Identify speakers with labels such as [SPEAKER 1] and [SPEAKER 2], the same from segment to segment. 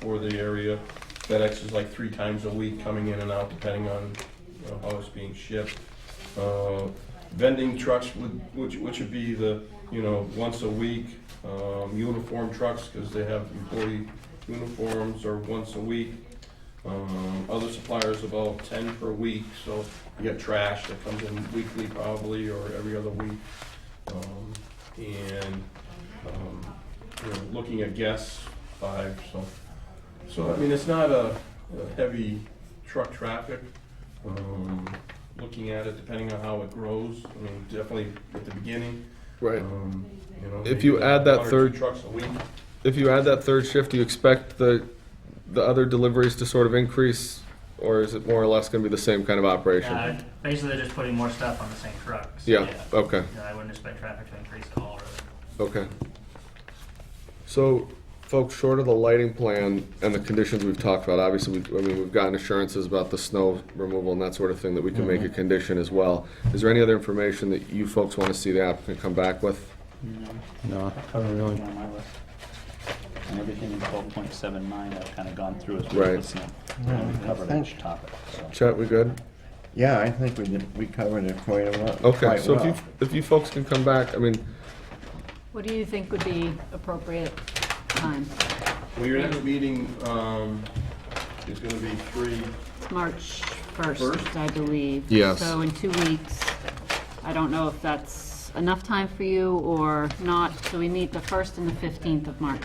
[SPEAKER 1] for the area. FedEx is like three times a week coming in and out depending on you know, how it's being shipped. Uh, Vending trucks, would- which, which would be the, you know, once a week, um, uniform trucks, because they have employee uniforms are once a week. Um, Other suppliers about ten per week, so you got trash that comes in weekly probably, or every other week. Um, And, um, you know, looking at guests, five, so. So, I mean, it's not a a heavy truck traffic. Um, Looking at it, depending on how it grows, I mean, definitely at the beginning.
[SPEAKER 2] Right.
[SPEAKER 1] um, You know.
[SPEAKER 2] If you
[SPEAKER 1] maybe
[SPEAKER 2] add that
[SPEAKER 1] one or two
[SPEAKER 2] third-
[SPEAKER 1] Trucks a week.
[SPEAKER 2] If you add that third shift, do you expect the, the other deliveries to sort of increase? Or is it more or less gonna be the same kind of operation?
[SPEAKER 3] Uh, basically, they're just putting more stuff on the same trucks.
[SPEAKER 2] Yeah, okay,
[SPEAKER 3] You know, I wouldn't expect traffic to increase at all, really.
[SPEAKER 2] okay. So, folks, short of the lighting plan and the conditions we've talked about, obviously, we, I mean, we've gotten assurances about the snow removal and that sort of thing that we can make a condition as well. Is there any other information that you folks wanna see the applicant come back with?
[SPEAKER 4] No, covering everything on my list. And everything in twelve point seven nine, I've kind of gone through as
[SPEAKER 2] Right.
[SPEAKER 4] we're listening. And we covered each
[SPEAKER 5] Thanks.
[SPEAKER 4] topic, so.
[SPEAKER 2] Chet, we good?
[SPEAKER 5] Yeah, I think we did, we covered it quite a lot.
[SPEAKER 2] Okay,
[SPEAKER 5] quite
[SPEAKER 2] so if
[SPEAKER 5] well.
[SPEAKER 2] you, if you folks can come back, I mean,
[SPEAKER 6] What do you think would be appropriate time?
[SPEAKER 1] Well, your next meeting um, is going to be three,
[SPEAKER 6] It's March
[SPEAKER 1] First?
[SPEAKER 6] 1st, I believe.
[SPEAKER 2] Yes.
[SPEAKER 6] So in two weeks, I don't know if that's enough time for you or not, so we meet the 1st and the 15th of March.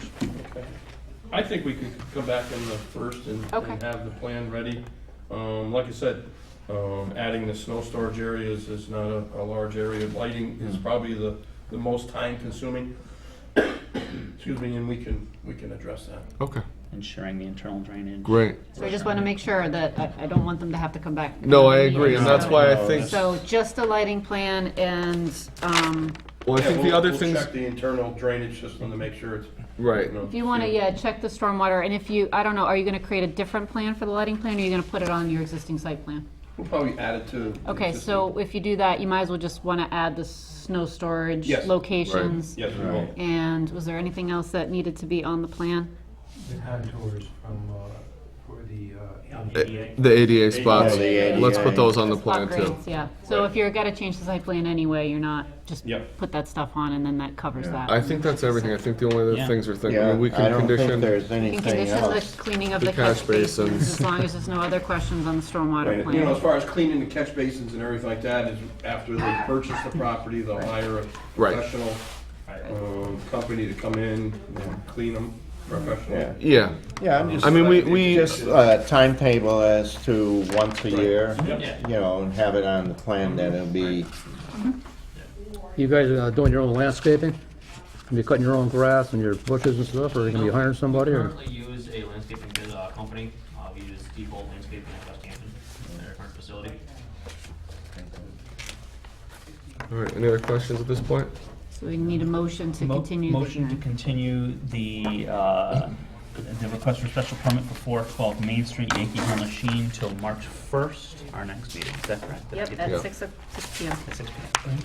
[SPEAKER 1] I think we could come back in the first and and
[SPEAKER 6] Okay.
[SPEAKER 1] have the plan ready. Um, Like I said, um, adding the snow storage areas is not a a large area. Lighting is
[SPEAKER 6] Mm-hmm.
[SPEAKER 1] probably the, the most time consuming. Excuse me, and we can, we can address that.
[SPEAKER 2] okay,
[SPEAKER 4] Ensuring the internal drainage.
[SPEAKER 2] great.
[SPEAKER 6] So I just want to make sure that, I I don't want them to have to come back.
[SPEAKER 2] No, I
[SPEAKER 6] another
[SPEAKER 2] agree, and
[SPEAKER 6] meeting,
[SPEAKER 2] that's
[SPEAKER 6] so-
[SPEAKER 2] why I
[SPEAKER 4] No,
[SPEAKER 2] think,
[SPEAKER 6] So just a lighting plan and um,
[SPEAKER 2] well, I
[SPEAKER 1] Yeah,
[SPEAKER 2] think the
[SPEAKER 1] we'll-
[SPEAKER 2] other
[SPEAKER 1] we'll
[SPEAKER 2] things,
[SPEAKER 1] Check the internal drainage system to make sure it's.
[SPEAKER 2] right.
[SPEAKER 1] you know,
[SPEAKER 6] if you want to,
[SPEAKER 1] safe.
[SPEAKER 6] yeah, check the stormwater, and if you, I don't know, are you going to create a different plan for the lighting plan, or are you going to put it on your existing site plan?
[SPEAKER 1] We'll probably add it to. the
[SPEAKER 6] Okay,
[SPEAKER 1] existing-
[SPEAKER 6] so if you do that, you might as well just want to add the snow storage
[SPEAKER 1] Yes.
[SPEAKER 6] locations.
[SPEAKER 1] Yes, we will.
[SPEAKER 6] And was there anything else that needed to be on the plan?
[SPEAKER 7] The contours from, uh, for the, uh, on the
[SPEAKER 3] ADA.
[SPEAKER 2] The ADA spots,
[SPEAKER 5] the ADA.
[SPEAKER 2] let's put those on the plan
[SPEAKER 6] Spot
[SPEAKER 2] too.
[SPEAKER 6] grades, yeah. So if you're gonna change the site plan anyway, you're not, just
[SPEAKER 1] Yep.
[SPEAKER 6] put that stuff on and then that covers
[SPEAKER 5] Yeah.
[SPEAKER 6] that.
[SPEAKER 2] I think that's everything, I think the only other
[SPEAKER 4] Yeah.
[SPEAKER 2] things are things, I
[SPEAKER 5] Yeah,
[SPEAKER 2] mean, we
[SPEAKER 5] I
[SPEAKER 2] can
[SPEAKER 5] don't think
[SPEAKER 2] condition,
[SPEAKER 5] there's
[SPEAKER 6] You can
[SPEAKER 5] anything
[SPEAKER 6] condition the
[SPEAKER 5] else.
[SPEAKER 6] cleaning of
[SPEAKER 2] The
[SPEAKER 6] the
[SPEAKER 2] catch
[SPEAKER 6] catch basins,
[SPEAKER 2] basins.
[SPEAKER 6] as long as there's no other questions on the stormwater
[SPEAKER 1] Right, You know, as
[SPEAKER 6] plan.
[SPEAKER 1] far as cleaning the catch basins and everything like that, is after they purchase the property, they'll hire a
[SPEAKER 2] Right.
[SPEAKER 1] professional um, company to come in and clean them,
[SPEAKER 5] Yeah.
[SPEAKER 1] professional.
[SPEAKER 2] yeah.
[SPEAKER 5] Yeah, I'm just.
[SPEAKER 2] I mean, we, we,
[SPEAKER 5] Just a timetable as to once a year,
[SPEAKER 1] Yep.
[SPEAKER 5] you know, and have it on the plan that it'll be,
[SPEAKER 8] You guys are uh, doing your own landscaping? You're cutting your own grass and your bushes and stuff, or are you gonna be hiring somebody, or?
[SPEAKER 9] Currently use a landscaping bid, uh, company, uh, we use Deepole Landscaping at West Hampton, their current facility.
[SPEAKER 2] All right, any other questions at this point?
[SPEAKER 6] So we need a motion to
[SPEAKER 4] Mo-
[SPEAKER 6] continue the
[SPEAKER 4] Motion to
[SPEAKER 6] hearing.
[SPEAKER 4] continue the, uh, the request for special permit for four twelve Main Street, Yankee Hill Machine, till March first, our next meeting, is that correct? Did I
[SPEAKER 6] Yep,
[SPEAKER 4] get
[SPEAKER 2] Yeah.
[SPEAKER 6] at six, o- six P M.
[SPEAKER 4] that? At six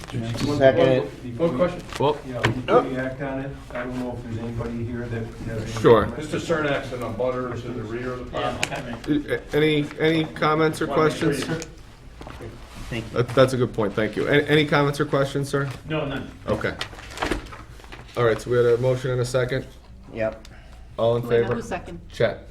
[SPEAKER 4] p.m.
[SPEAKER 5] second it.
[SPEAKER 1] One question,
[SPEAKER 2] Well, oh.
[SPEAKER 7] Yeah, before we act on it, I don't know if there's anybody here that has any
[SPEAKER 2] Sure.
[SPEAKER 7] comments.
[SPEAKER 1] Mr. Cernak's in a butter to the rear of the property.
[SPEAKER 2] a- any, any comments or questions?
[SPEAKER 4] Thank you.
[SPEAKER 2] That- That's a good point, thank you. Any, any comments or questions, sir?
[SPEAKER 4] No, none.
[SPEAKER 2] Okay. All right, so we had a motion and a second,
[SPEAKER 5] Yep.
[SPEAKER 2] all in
[SPEAKER 6] Do I know
[SPEAKER 2] favor?
[SPEAKER 6] who's second?
[SPEAKER 2] Chat.